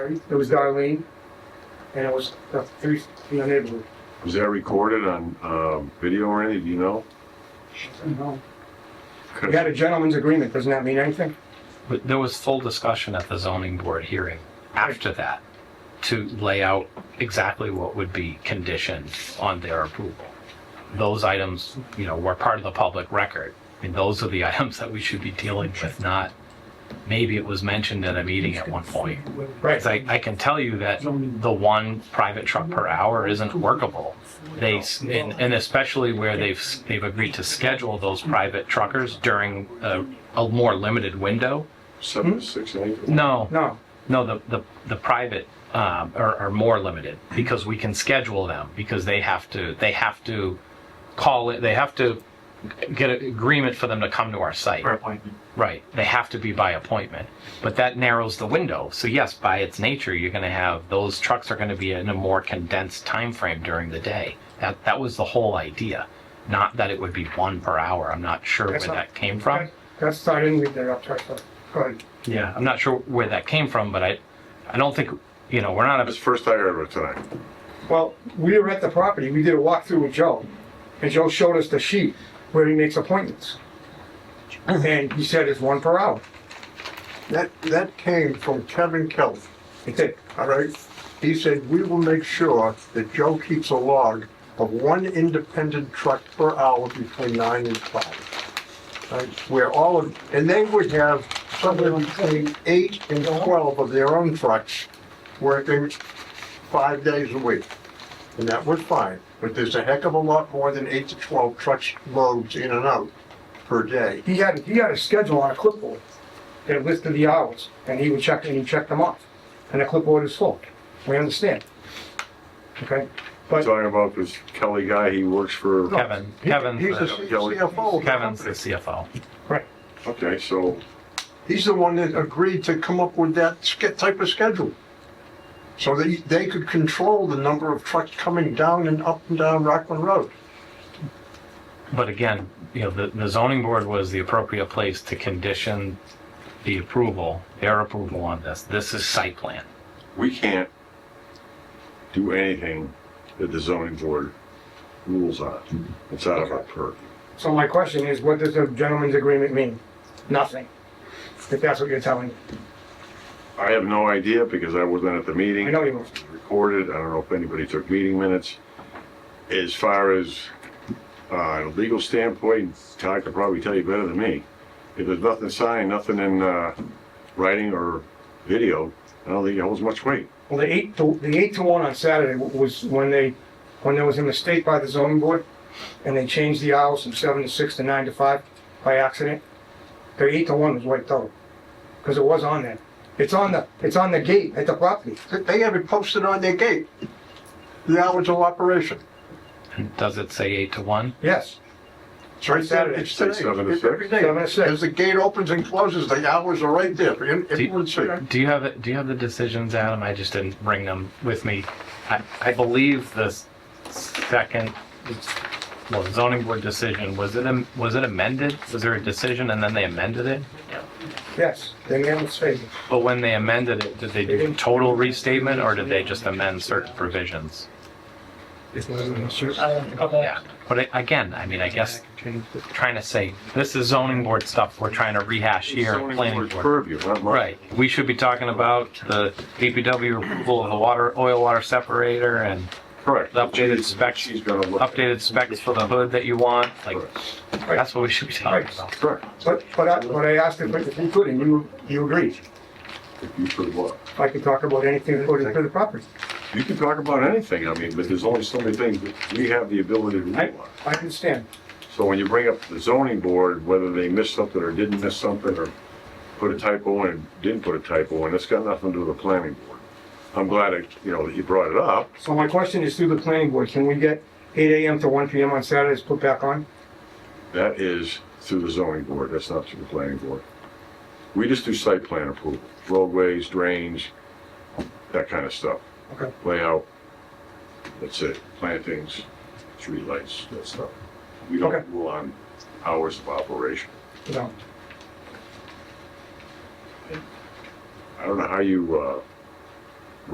It was Darlene, and it was the three, from the neighborhood. Was that recorded on um, video or anything? Do you know? We had a gentleman's agreement, doesn't that mean anything? But there was full discussion at the zoning board hearing after that to lay out exactly what would be conditioned on their approval. Those items, you know, were part of the public record. I mean, those are the items that we should be dealing with, not, maybe it was mentioned at a meeting at one point. Right. Because I, I can tell you that the one private truck per hour isn't workable. They, s- and, and especially where they've, s- they've agreed to schedule those private truckers during a, a more limited window. Seven to six, I think. No, Hmm? No, no, the, the, the private um, are, are more limited because we can schedule them because they have to, they have to call it, they have to get an agreement for them to come to our site. appointment. Right. They have to be by appointment. But that narrows the window. So yes, by its nature, you're going to have those trucks are going to be in a more condensed time frame during the day. That that was the whole idea. Not that it would be one per hour. I'm not sure That's where not- that came from. that- that's, I didn't read that up, sorry, sorry. Go ahead. Yeah, I'm not sure where that came from, but I I don't think, you know, we're not That's a the first I heard of it tonight. Well, we were at the property, we did a walkthrough with Joe, and Joe showed us the sheet where he makes appointments. And he said it's one per hour. That, that came from Kevin Kelly, It did. all right? He said, we will make sure that Joe keeps a log of one independent truck per hour between nine and five. Right, Where all of, and they would have somewhere between eight and twelve of their own trucks working five days a week. And that was fine, but there's a heck of a lot more than eight to twelve trucks loads in and out per day. He had, he had a schedule on a clipboard that listed the hours, and he would check, and he checked them off. And the clipboard is full, we understand. Okay? But Talking about this Kelly guy, he works for, Kevin. Kevin. He's a the, CFO. of the Kevin's the company. CFO. okay, so He's the one that agreed to come up with that sch- type of schedule. So that he- they could control the number of trucks coming down and up and down Rockland Road. But again, you know, the, the zoning board was the appropriate place to condition the approval, their approval on this. This is site plan. we can't do anything that the zoning board rules on. It's out of our purview. So my question is, what does the gentleman's agreement mean? Nothing. If that's what you're telling me. I have no idea because I wasn't at the meeting. I know you were. recorded. I don't know if anybody took meeting minutes. As far as uh, a legal standpoint, Todd could probably tell you better than me. If there's nothing signed, nothing in uh, writing or video, I don't think it holds much weight. Well, the eight to, the eight to one on Saturday w- was when they, when there was a mistake by the zoning board, and they changed the hours from seven to six to nine to five by accident. The eight to one was wiped out, because it was on there. It's on the, it's on the gate at the property. Th- They have it posted on their gate, the hours of operation. And does it say eight to one? Yes, It's right there, Saturday. it's today. Say seven to It's six? every day. Seven to six. As the gate opens and closes, the hours are right there, for in- you- everyone to see. Do you have do you have the decisions, Adam? I just didn't bring them with me. I, I believe the second well zoning board decision was it am- was it amended? Was there a decision and then they amended it? yes, they made a mistake. But when they amended it, did they do a total restatement or did they just amend certain provisions? Yeah. But a- again, I mean, I guess trying to say this is zoning board stuff. We're trying to rehash here. Zoning Planning board's board. Purview, not mine. Right. We should be talking about the DPW approval of the water, oil water separator and Correct. The updated specs- She's gonna look. at it. updated specs for the hood that you want. Like, Correct. that's what we should be talking about. Correct. But, but I, but I asked if if you could, and you, you agreed. If you could look. If I could talk about anything according to the property. You can talk about anything, I mean, but there's only so many things that we have the ability to I, do. I understand. So when you bring up the zoning board, whether they missed something or didn't miss something, or put a typo in, didn't put a typo in, it's got nothing to do with the planning board. I'm glad, it- you know, that you brought it up. So my question is through the planning board, can we get eight AM to one PM on Saturdays put back on? That is through the zoning board, that's not through the planning board. We just do site plan approval, roadways, drains, that kind of stuff. Okay. Layout, that's it, plantings, streetlights, that stuff. We Okay. don't rule on hours of operation. No. I don't know how you, uh,